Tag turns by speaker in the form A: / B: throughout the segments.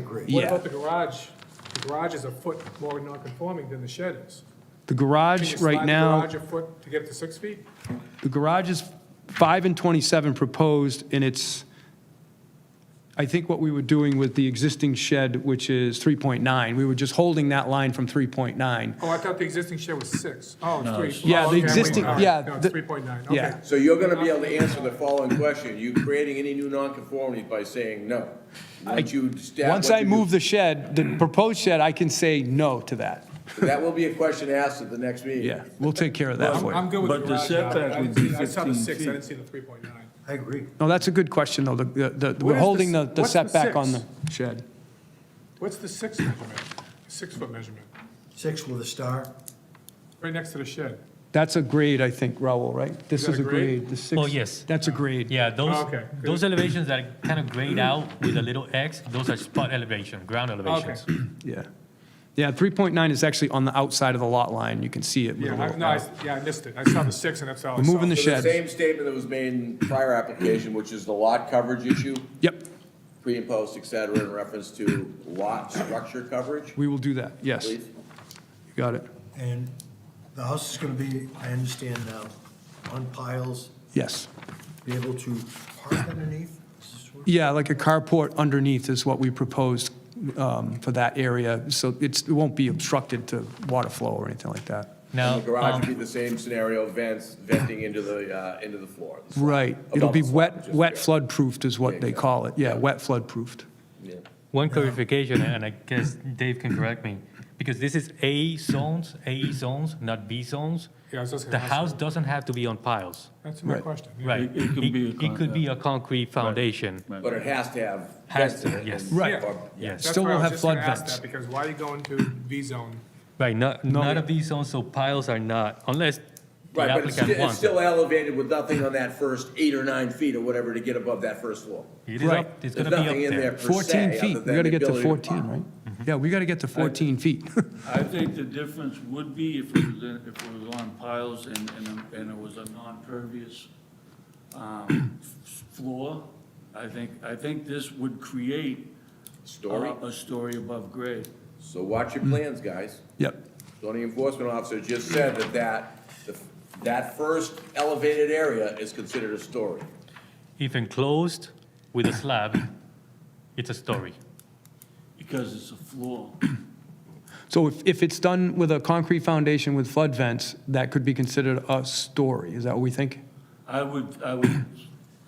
A: agree.
B: What
C: Yeah.
B: about the garage? The garage is a foot more non-conforming than the shed is.
C: The
B: Can you
C: garage
B: slide
C: right now,
B: the garage a foot to get to six feet?
C: the garage is 5 and 27 proposed, and it's, I think what we were doing with the existing shed, which is 3.9, we were just holding that line from 3.9.
B: Oh, I thought the existing shed was six. Oh, it's three. Oh,
C: Yeah, the
B: okay, wait,
C: existing-
B: all right.
C: yeah,
B: No, it's
C: the-
B: three point nine, okay.
C: yeah.
D: So you're gonna be able to answer the following question, you creating any new nonconformities by saying no? Once you stab.
C: Once I move the shed, the proposed shed, I can say no to that.
D: That will be a question asked at the next meeting.
C: Yeah, we'll take care of that
B: I'm
C: for
B: I'm
C: you.
B: good with the
E: But the
B: garage. now. I
E: setback
B: didn't
E: would be
B: see- I saw the
E: 15
B: six, I
E: feet.
B: didn't see the three point nine.
A: I agree.
C: No, that's a good question, though, the, the- the,
B: Where's
C: we're
B: the
C: holding the
B: s-
C: the
B: what's the
C: setback on the
B: six?
C: shed.
B: What's the six measurement? Six foot measurement,
A: Six with a star.
B: right next to the shed.
C: That's a grade, I think, Raul, right? This
B: that
C: is
B: a
C: a
B: grade?
C: grade. The six-
F: Oh, yes.
C: That's a grade.
F: Yeah, those,
B: okay, good.
F: those elevations that are kind of grayed out with a little X, those are spot elevation, ground
B: Okay.
F: elevations.
C: Yeah. Yeah, 3.9 is actually on the outside of the lot line. You can see it. with a
B: Yeah, I,
C: little uh,
B: no, I,
C: arrow.
B: yeah, I missed it. I saw the six and that's all I
C: We're
B: saw.
C: moving the
D: So the
C: shed.
D: same statement that was made in prior application, which is the lot coverage issue,
C: Yep,
D: pre and post, et cetera, in reference to lot structure coverage,
C: we will do that. Yes, you
D: please?
C: got it.
A: And the house is going to be, I understand now, on piles,
C: Yes.
A: be able to park underneath? Is this where-
C: Yeah, like a carport underneath is what we proposed um, for that area. So it's, it won't be obstructed to water flow or anything like that.
F: Now,
D: The garage
F: um,
D: would be the same scenario, vents, venting into the, uh, into the floor. the slab,
C: Right. It'll
D: above
C: be
D: the slab,
C: wet,
D: just-
C: wet
D: yeah.
C: flood-proofed is what they
D: Yeah.
C: call it. Yeah, wet flood-proofed.
D: Yeah.
F: one clarification, and I guess Dave can correct me, because this is A zones, AE zones, not B zones.
B: Yeah, I was just gonna
F: The
B: ask
F: house doesn't have to be on piles,
B: That's my
C: Right.
B: question. yeah.
F: right?
E: It- it could be a con-
F: It could be a concrete foundation.
D: But it has to have
F: Has
D: vents
F: to,
D: in it.
F: yes.
D: and-
C: Right.
D: or-
F: Yes.
B: That's
C: Still
B: why I
C: will
B: was
C: have
B: just gonna
C: flood
B: ask
C: vents.
B: that, Because why are you going to V zone?
F: Right, not,
C: No.
F: not a B zone, so piles are not, unless the
D: Right, but it's
F: applicant
D: sti- it's
F: wants. it.
D: still elevated with nothing on that first eight or nine feet or whatever to get above that first floor.
F: It is
C: Right.
F: up, it's
D: There's
F: gonna be
D: nothing
F: up
D: in there
F: there.
D: per
C: 14
D: se,
C: feet.
D: other
C: We got
D: than the
C: to get to
D: ability
C: 14,
D: pop. Mm-hmm.
C: right? Yeah, we got to get to 14 feet.
E: I think the difference would be if it was, in- if it was on piles and, and, and it was a non-pervious, um, f- floor. I think, I think this would create.
D: Story.
E: A a story above grade.
D: So watch
F: Hmm.
D: your plans, guys.
C: Yep.
D: Zoning enforcement officer just said that that, the- that first elevated area is considered a story.
F: If enclosed with a slab, it's a story.
E: Because it's a floor.
C: So if, if it's done with a concrete foundation with flood vents, that could be considered a story, is that what we think?
E: I would, I would,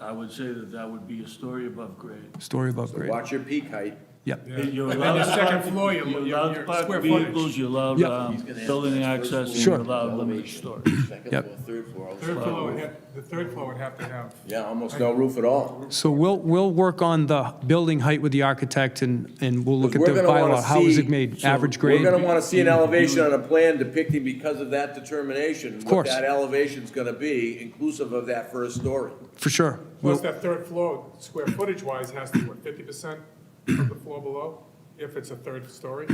E: I would say that that would be a story above grade.
C: Story above
D: So
C: grade?
D: watch your peak height.
C: Yep,
E: You're
B: And
E: allowed
B: the
E: to
B: second
E: park-
B: floor, you- you-
E: You're allowed
B: your
E: to park
B: square footage.
E: vehicles, you're allowed,
C: Yep.
E: um, building access, and
C: Sure.
E: you're allowed limited storage.
D: Second
C: Yep.
D: floor, third floor. all the
B: Third
D: way.
B: floor would have, the third floor would have to have,
D: Yeah, almost no roof at all.
C: so we'll, we'll work on the building height with the architect and, and we'll look at
D: We're
C: the
D: gonna wanna
C: bylaw, how is it
D: see-
C: made,
D: so
C: average grade? Mm-hmm.
D: We're gonna wanna see an elevation on a plan depicting because of that determination.
C: course.
D: What that elevation's gonna be, inclusive of that first story.
C: For sure.
B: plus
C: We'll-
B: that third floor, square footage wise, has to, be, what, fifty percent of the floor below? If it's a third story?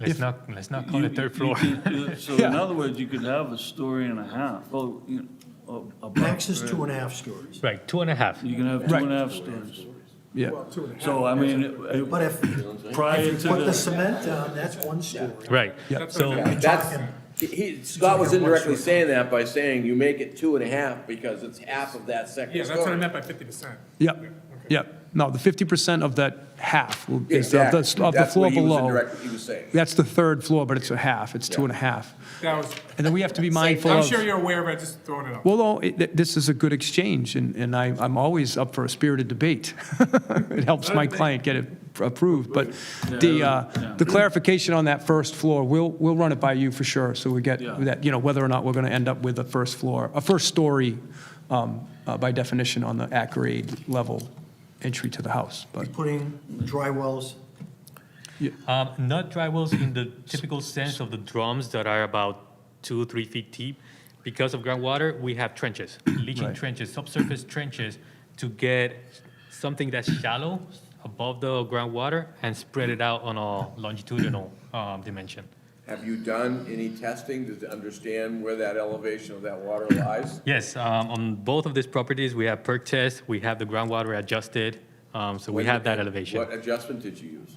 F: Let's not, let's not call
E: You-
F: it third
E: you
F: floor.
E: can- So in other words, you could have a story and a half, oh, you know, a- above
A: Max is
E: grade.
A: two and a half stories.
F: Right, two and a half.
E: You can have two and a half stories.
C: Yeah,
B: Well, two and a half.
E: So I mean,
A: But
E: it-
A: if you
E: it- prior to
A: put the
E: the,
A: cement down, that's one story.
F: Right.
C: Yep.
F: So,
D: Yeah, That's, he, Scott was indirectly saying that by saying you make it two and a half because it's half of that
B: Yeah,
D: second
B: that's what I
D: story.
B: meant by fifty percent.
C: yep, yep. No, the 50% of that half will be of
D: Exactly.
C: the, of the
D: That's
C: floor
D: what he was
C: below.
D: indirectly- He was saying.
C: That's the third floor, but it's a half, it's two
D: Yeah.
C: and a half.
B: That was,
C: And then we have to be mindful of.
B: I'm sure you're aware of it, just throwing it up.
C: Well, no, it- th- this is a good exchange, and, and I, I'm always up for a spirited debate. It helps my client get it approved, but the, uh, the clarification on that first floor, we'll, we'll run it by you for sure, so we get
E: Yeah.
C: that, you know, whether or not we're gonna end up with a first floor, a first story, um, uh, by definition, on the at grade E level entry to the house, but,
A: Putting dry wells,
F: um, not drywells in the typical sense of the drums that are about two, three feet deep. Because of groundwater, we have trenches, leaching
C: Right.
F: trenches, subsurface trenches to get something that's shallow above the groundwater and spread it out on a longitudinal um, dimension.
D: Have you done any testing to understand where that elevation of that water lies?
F: Yes, um, on both of these properties, we have perk tests, we have the groundwater adjusted, um, so we
D: When-
F: have that elevation.
D: What adjustment did you use?